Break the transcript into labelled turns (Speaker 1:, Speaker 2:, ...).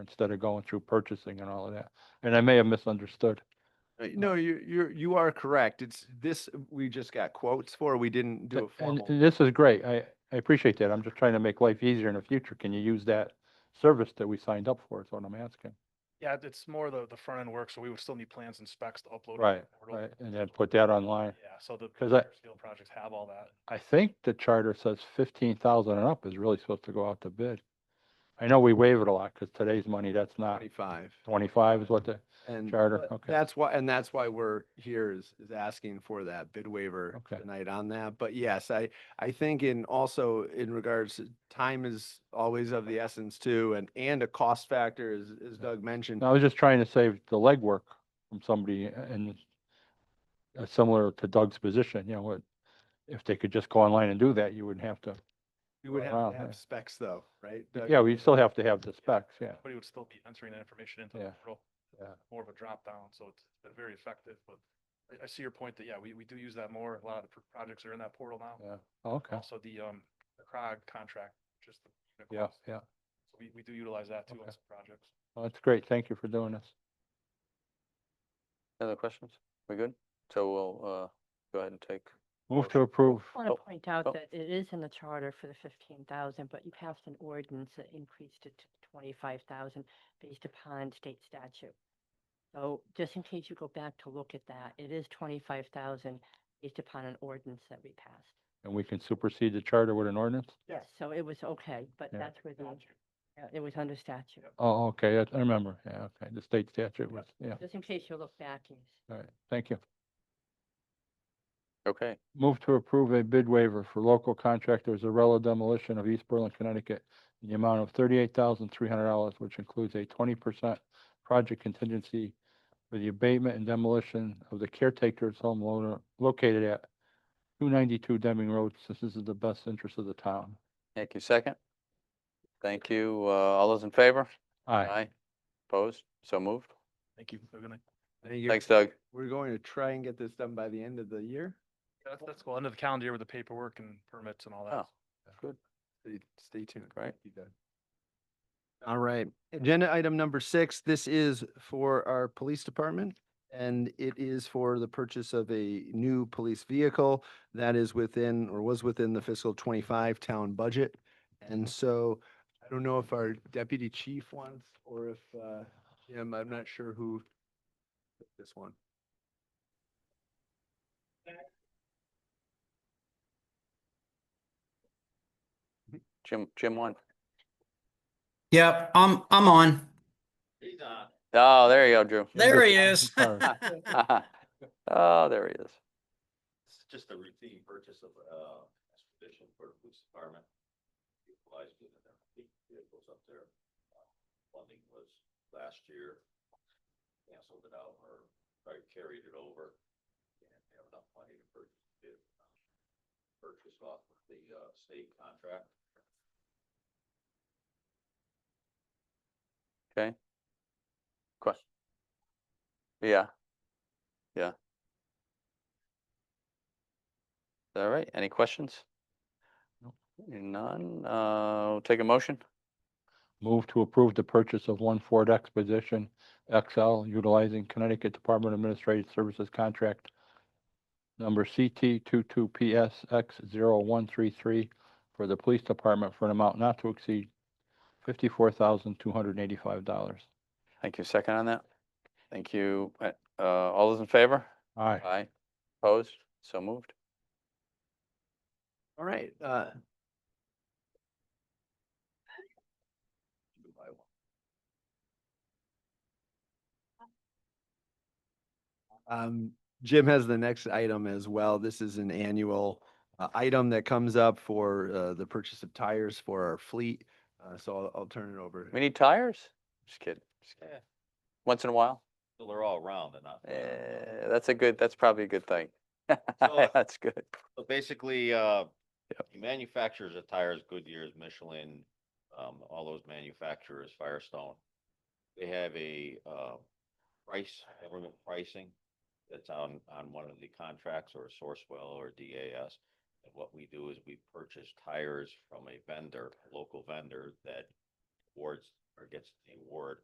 Speaker 1: instead of going through purchasing and all of that. And I may have misunderstood.
Speaker 2: Uh, No, you, you're, you are correct. It's this, uh, we just got quotes for, we didn't do a
Speaker 1: Th- And
Speaker 2: formal.
Speaker 1: this is great. I, I appreciate that. I'm just trying to make life easier in the future. Can you use that service that we signed up for? Is what I'm asking.
Speaker 3: Yeah, it's more the, the front end work, so we would still need plans and specs to upload. to the
Speaker 1: Right,
Speaker 3: portal.
Speaker 1: right. And then put that online.
Speaker 3: Yeah, so the.
Speaker 1: 'Cause I-
Speaker 3: bigger Scale projects have all that.
Speaker 1: I think the charter says fifteen thousand and up is really supposed to go out to bid. I know we waive it a lot because today's money, that's not
Speaker 2: Twenty-five.
Speaker 1: twenty-five is what the,
Speaker 2: And
Speaker 1: Charter,
Speaker 2: but
Speaker 1: okay.
Speaker 2: That's why, and that's why we're here is, is asking for that bid waiver
Speaker 1: Okay.
Speaker 2: tonight on that. But yes, I, I think in also in regards, to time is always of the essence too, and, and a cost factor as, as Doug mentioned.
Speaker 1: No, I was just trying to save the legwork from somebody and uh, similar to Doug's position, you know, what, if they could just go online and do that, you wouldn't have to.
Speaker 2: We would
Speaker 1: wow,
Speaker 2: have to
Speaker 1: yeah.
Speaker 2: have specs though, right? Doug?
Speaker 1: Yeah, we still have to have the specs, yeah.
Speaker 3: But you would still be entering that information into
Speaker 1: Yeah,
Speaker 3: the portal.
Speaker 1: yeah.
Speaker 3: More of a drop down, so it's been very effective, but I, I see your point that, yeah, we, we do use that more. A lot of the pro- projects are in that portal now.
Speaker 1: Yeah, Oh, okay,
Speaker 3: Also the, um, the CROG contract, just. the- the
Speaker 1: yeah,
Speaker 3: cost.
Speaker 1: yeah.
Speaker 3: So We, we do utilize that too on
Speaker 1: Okay.
Speaker 3: some projects.
Speaker 1: Well, That's great. Thank you for doing this.
Speaker 4: Other questions? We good? So we'll, uh, go ahead and take,
Speaker 1: Move to approve.
Speaker 5: I want
Speaker 4: Oh,
Speaker 5: to point out
Speaker 4: oh.
Speaker 5: that it is in the charter for the fifteen thousand, but you passed an ordinance that increased it to twenty-five thousand based upon state statute. So just in case you go back to look at that, it is twenty-five thousand based upon an ordinance that we passed.
Speaker 1: And we can supersede the charter with an ordinance?
Speaker 5: Yes. So it was okay, but
Speaker 1: Yeah.
Speaker 5: that's where the, yeah, it was under statute.
Speaker 1: Oh, okay, I- I remember. Yeah, okay, the state statute was, yeah.
Speaker 5: Just in case you look back and you s-
Speaker 1: All right, thank you.
Speaker 4: okay,
Speaker 1: Move to approve a bid waiver for local contractor Zarella demolition of East Berlin, Connecticut in the amount of thirty-eight thousand three hundred dollars, which includes a twenty percent project contingency for the abatement and demolition of the caretaker's home lo- located at two ninety-two Deming Road, since this is the best interest of the town.
Speaker 4: thank you, second. Thank you, uh, all those in favor?
Speaker 1: Aye.
Speaker 4: Opposed? So moved?
Speaker 3: Thank you. Have a good night.
Speaker 2: I think you're-
Speaker 4: Thanks, Doug.
Speaker 2: We're going to try and get this done by the end of the year.
Speaker 3: That's, that's cool. End of the calendar year with the paperwork and permits and all that.
Speaker 4: Oh. Good.
Speaker 2: Stay- Stay tuned.
Speaker 4: Great.
Speaker 2: You done. All right, agenda item number six, this is for our police department. And it is for the purchase of a new police vehicle that is within or was within the fiscal twenty-five town budget. And so I don't know if our deputy chief wants or if uh, Jim, I'm not sure who took this one.
Speaker 4: Jim, Jim won.
Speaker 6: Yep, I'm, I'm on.
Speaker 4: Oh, there you go, Drew.
Speaker 6: There he
Speaker 1: I'm
Speaker 6: is.
Speaker 1: sorry.
Speaker 4: Oh, there he is.
Speaker 7: This is just a routine purchase of, uh, expedition for the police department. Utilized it in their fleet vehicles up there. Uh, Funding was last year. Canceled it out or, or carried it over. And they have enough money to purchase it. uh, Purchase off of the, uh, state contract.
Speaker 4: Question. Yeah. Yeah. All right, any questions?
Speaker 1: Nope.
Speaker 4: None, uh, we'll take a motion.
Speaker 1: Move to approve the purchase of one Ford Expedition XL utilizing Connecticut Department of Administrative Services contract number CT 22PSX0133 for the Police Department for an amount not to exceed $54,285.
Speaker 4: Thank you. Second on that? Thank you. Uh, uh, all those in favor?
Speaker 1: Aye.
Speaker 4: Aye. Opposed? So moved.
Speaker 2: All right, uh,
Speaker 7: You buy one.
Speaker 2: Um, Jim has the next item as well. This is an annual uh, item that comes up for uh, the purchase of tires for our fleet. Uh, so I'll, I'll turn it over.
Speaker 4: We need tires? Just kidding. just kidding.
Speaker 7: Yeah.
Speaker 4: Once in a while?
Speaker 7: So they're all round and not. flat.
Speaker 4: Eh, that's a good, that's probably a good thing.
Speaker 7: So- uh,
Speaker 4: That's good.
Speaker 7: So basically, uh, the manufacturers of tires, Goodyear's, Michelin, um, all those manufacturers, Firestone. They have a, uh, price, government pricing that's on, on one of the contracts or Sourcewell or DAS. And what we do is we purchase tires from a vendor, local vendor that awards or gets the award